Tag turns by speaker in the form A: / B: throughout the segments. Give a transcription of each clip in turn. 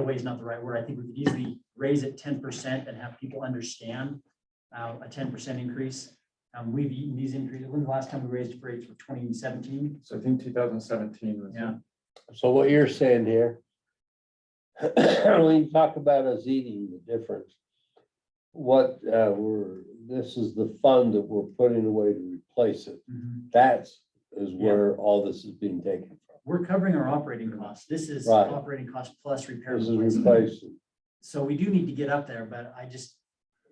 A: away is not the right word. I think we could easily raise it ten percent and have people understand uh, a ten percent increase. Um, we've eaten these increases. When was the last time we raised rates for twenty seventeen?
B: So I think two thousand seventeen was.
A: Yeah.
C: So what you're saying here, when you talk about us eating the difference, what, uh, we're, this is the fund that we're putting away to replace it. That's, is where all this is being taken
A: We're covering our operating costs. This is
C: Right.
A: operating cost plus repair.
C: from. This
A: and
C: is
A: replacement.
C: replacing.
A: So we do need to get up there, but I just,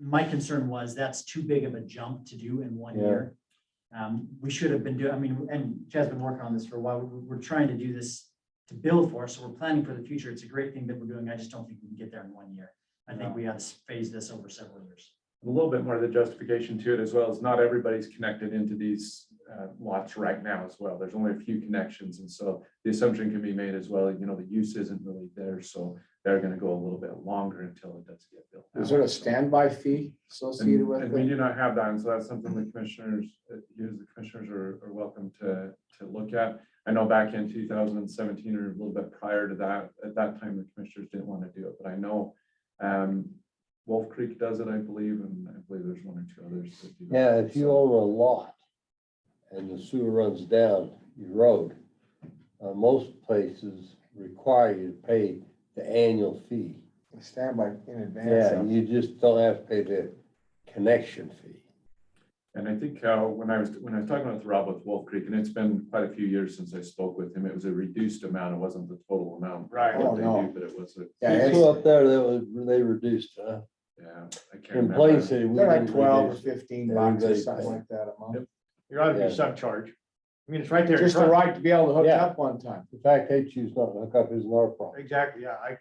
A: my concern was that's too big of a jump to do in one
C: Yeah.
A: year. Um, we should have been doing, I mean, and Chad's been working on this for a while. We're, we're trying to do this to build for, so we're planning for the future. It's a great thing that we're doing. I just don't think we can get there in one year. I think
B: No.
A: we have to phase this over several years.
B: A little bit more of the justification to it as well is not everybody's connected into these uh, lots right now as well. There's only a few connections. And so the assumption can be made as well, you know, the use isn't really there. So they're going to go a little bit longer until it does get built.
D: Is there
B: out.
D: a standby fee associated
B: And
D: with
B: and we
D: it?
B: do not have that, and so that's something the commissioners, uh, you as the commissioners are, are welcome to, to look at. I know back in two thousand and seventeen or a little bit prior to that, at that time, the commissioners didn't want to do it, but I know um, Wolf Creek does it, I believe, and I believe there's one or two others that do. that.
C: Yeah, if you own a lot and the sewer runs down your road, uh, most places require you to pay the annual fee.
D: Standby in advance.
C: Yeah,
D: of-
C: you just don't have to pay the connection fee.
B: And I think uh, when I was, when I was talking with Rob with Wolf Creek, and it's been quite a few years since I spoke with him, it was a reduced amount, it wasn't the total amount.
E: Right.
B: that
D: Oh,
B: they
D: no.
B: do, But it was a,
D: Yeah,
C: People
D: it's-
C: up there, that was, they reduced, uh, huh?
B: yeah, I can't
C: In
B: remember.
C: Plain City. we
D: They're like
C: didn't
D: twelve or
C: reduce.
D: fifteen bucks or
C: Everybody
D: something
C: pay.
D: like that a month.
E: There ought to
C: Yeah.
E: be some charge. I mean, it's right there. in
D: Just the
E: front.
D: right to be able to hook
C: Yeah.
D: up one time.
C: The fact they choose not to hook up isn't our problem.
E: Exactly, yeah, I,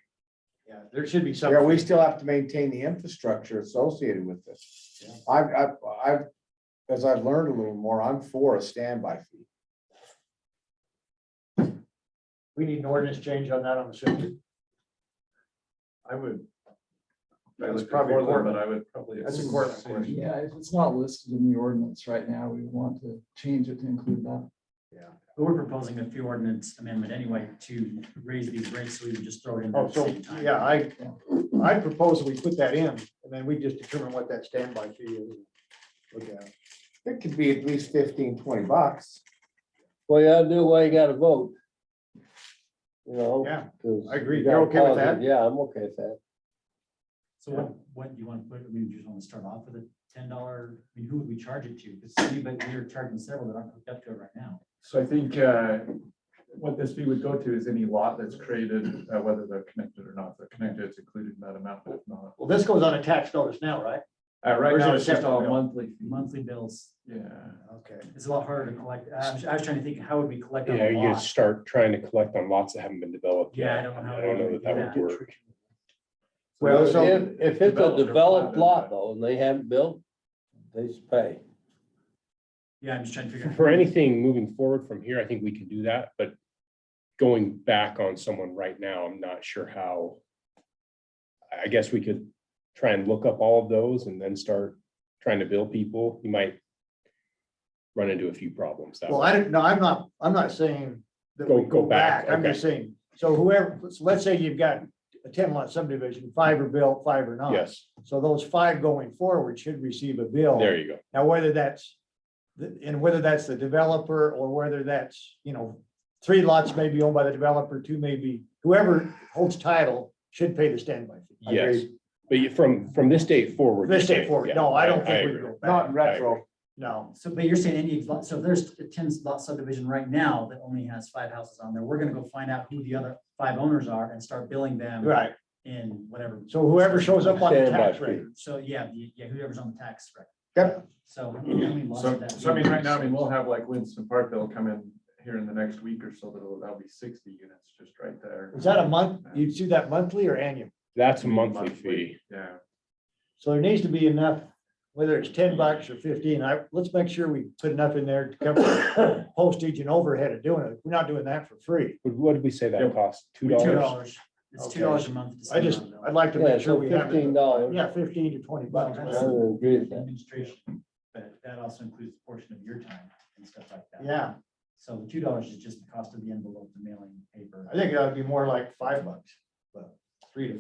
E: yeah, there should be some.
D: Yeah, we still have to maintain the infrastructure associated with this. I've, I've, I've, as I've learned a little more, I'm for a standby fee.
E: We need an ordinance change on that, I'm assuming.
B: I would.
E: That's
B: I looked at
E: probably
B: Portland,
E: important.
B: But I would probably.
E: That's
B: assume
E: important.
B: the same.
F: Yeah, if it's not listed in the ordinance right now, we want to change it to include that.
A: But we're proposing a few ordinance amendment anyway to raise these rates, so we would just throw it in there
E: Oh,
A: at the
E: so,
A: same time.
E: yeah, I, I propose we put that in, and then we just determine what that standby fee is. Look at it.
D: It could be at least fifteen, twenty bucks.
C: Well, you gotta do why you gotta vote. You know?
E: Yeah,
C: 'cause
E: I agree.
C: you gotta
E: You're okay with
C: pause it.
E: that?
C: Yeah, I'm okay with that.
A: So what, what do you want to put, I mean, do you just want to start off with a ten dollar, I mean, who would we charge it to? Because anybody, we're charging several that aren't hooked up to it right now.
B: So I think uh, what this fee would go to is any lot that's created, uh, whether they're connected or not. If They're connected, it's included in that amount, but if not.
E: Well, this goes on a tax notice now, right?
B: Uh, Right
E: Or is it
B: now,
E: a
B: it's just
E: separate
B: all
E: bill?
B: monthly. fee.
A: Monthly bills,
B: Yeah.
E: Okay.
A: it's a lot harder to collect. I was I was trying to think, how would we collect on
G: Yeah,
A: a
G: you
A: lot?
G: start trying to collect on lots that haven't been developed.
A: Yeah, I
G: yet.
A: don't know how
G: I don't
A: we
G: know
A: would
G: that that
A: do
G: would work.
E: Well,
C: If-
E: so-
C: If it's a
B: Developed or
C: developed
B: platted.
C: lot though, and they haven't built, they just pay.
A: Yeah, I'm just trying to figure. out-
G: For anything moving forward from here, I think we can do that, but going back on someone right now, I'm not sure how. I- I guess we could try and look up all of those and then start trying to bill people. You might run into a few problems. that
E: Well, I don't, no, I'm not, I'm not saying. that we
G: Go- go back,
E: I'm just saying, so whoever, so let's say you've got a ten lot subdivision, five are built, five are
G: way.
E: not.
G: Yes,
E: So those five going forward should receive a bill.
G: there you go.
E: Now, whether that's, the- and whether that's the developer or whether that's, you know, three lots may be owned by the developer, two may be, whoever holds title should pay the standby fee.
G: Yes, but you- from, from this date forward.
E: This
G: you're
E: day
G: saying,
E: forward,
G: yeah,
E: no, I don't think we
G: agree.
E: go
D: Not
E: back,
D: in retro.
E: no.
A: So, but you're saying any, lot- so if there's a ten lot subdivision right now that only has five houses on there, we're gonna go find out who the other five owners are and start billing them
E: Right,
A: in whatever.
E: so whoever shows up on the
C: Standby
E: tax
C: fee.
E: rate,
A: So, yeah, the- yeah, whoever's on the tax record.
E: Yep.
A: So. how many lots
B: So,
A: would that
B: so I
A: be?
B: mean, right now, I mean, we'll have like Winston Park, they'll come in here in the next week or so, that'll, that'll be sixty units just right there.
E: is that a month, you do that monthly or annual?
G: That's a monthly fee.
B: Yeah.
E: So there needs to be enough, whether it's ten bucks or fifteen, I, let's make sure we put enough in there to cover postage and overhead of doing it, we're not doing that for free.
G: What- What did we say
B: Yeah.
G: that cost? Two
A: Two
G: dollars?
A: dollars, it's
E: Okay.
A: two dollars a month. to
E: I just,
A: send them out.
E: I'd like to
C: Yeah,
E: make sure
C: so
E: we have. it.
C: fifteen dollars.
E: Yeah, fifteen to twenty
A: Well,
E: bucks.
C: I would agree
A: that's
C: with that.
A: administration, but that also includes a portion of your time and stuff like that.
E: Yeah,
A: So the two dollars is just the cost of the envelope, the mailing, paper.
E: I think that'd be more like five bucks, but